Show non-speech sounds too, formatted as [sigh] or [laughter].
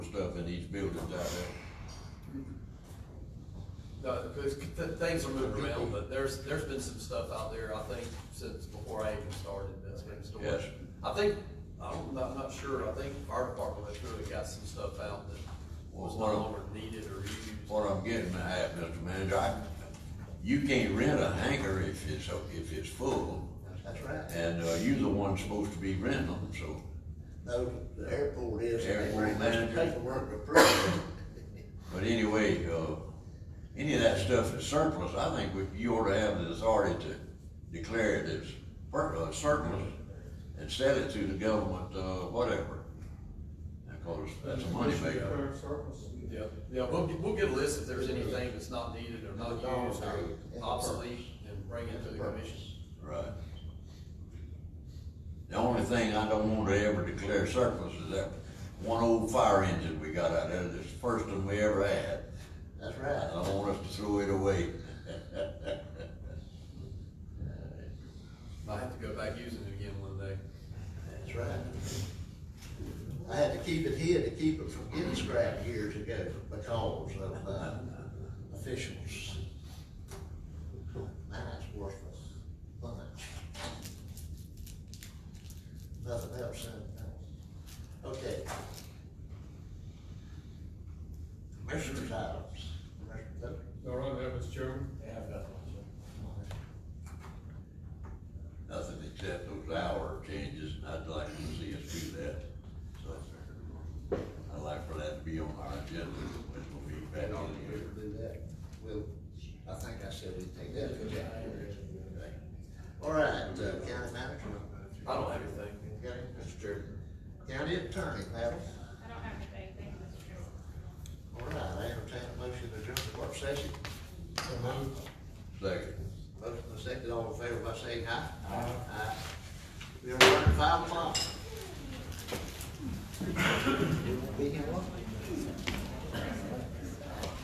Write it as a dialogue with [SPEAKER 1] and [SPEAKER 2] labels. [SPEAKER 1] buildings out there.
[SPEAKER 2] No, because th- things are moving around, but there's, there's been some stuff out there, I think, since before I even started, that's been stored.
[SPEAKER 1] Yes.
[SPEAKER 2] I think, I'm not, I'm not sure, I think fire department went through and got some stuff out that was no
[SPEAKER 1] Well,
[SPEAKER 2] longer needed or used.
[SPEAKER 1] What I'm getting at, Mr. Manager, I, you can't rent a hangar if it's, if it's full,
[SPEAKER 3] That's right.
[SPEAKER 1] and, uh, you're the one supposed to be renting them, so.
[SPEAKER 3] No, the airport is, and they
[SPEAKER 1] Airport
[SPEAKER 3] bring us the
[SPEAKER 1] manager.
[SPEAKER 3] paperwork to prove it.
[SPEAKER 1] But anyway, uh, any of that stuff is surplus, I think we- you ought to have the authority to declare it as per- uh, surplus and sell it to the government, uh, whatever. Of course, that's a moneymaker.
[SPEAKER 2] Yeah, yeah, we'll, get- we'll get a list if there's anything that's not needed or not used or obsolete and bring it to the commission.
[SPEAKER 1] Right. The only thing I don't want to ever declare surplus is that one old fire engine we got out there, that's the first one we ever had.
[SPEAKER 3] That's
[SPEAKER 1] I
[SPEAKER 3] right.
[SPEAKER 1] don't want us to throw it away. [laughs]
[SPEAKER 2] Might have to go back using it again one day.
[SPEAKER 3] That's right. I had to keep it here to keep it from getting scrapped years ago because of, uh, officials. Mine's worthless, mine. Nothing else, huh? Okay. Commissioners' items. Commissioner Cook?
[SPEAKER 4] All right, that was Chairman.
[SPEAKER 1] Nothing except those hour changes, and I'd like to see us do that. So I'd like for that to be on our agenda, which will be back
[SPEAKER 3] Right on,
[SPEAKER 1] in
[SPEAKER 3] we
[SPEAKER 1] here.
[SPEAKER 3] will do that. We'll, I think I said we take that. as a- Okay. All right, uh, county manager.
[SPEAKER 2] I don't have anything.
[SPEAKER 3] Got it, Mr. Chairman. County attorney, madam.
[SPEAKER 5] I don't have anything, thank you, Mr. Chairman.
[SPEAKER 3] All right, I entertain a motion to adjourn the work session.
[SPEAKER 1] Second.
[SPEAKER 3] Motion to second, all in favor by saying aye. Aye. Aye. We are running five o'clock.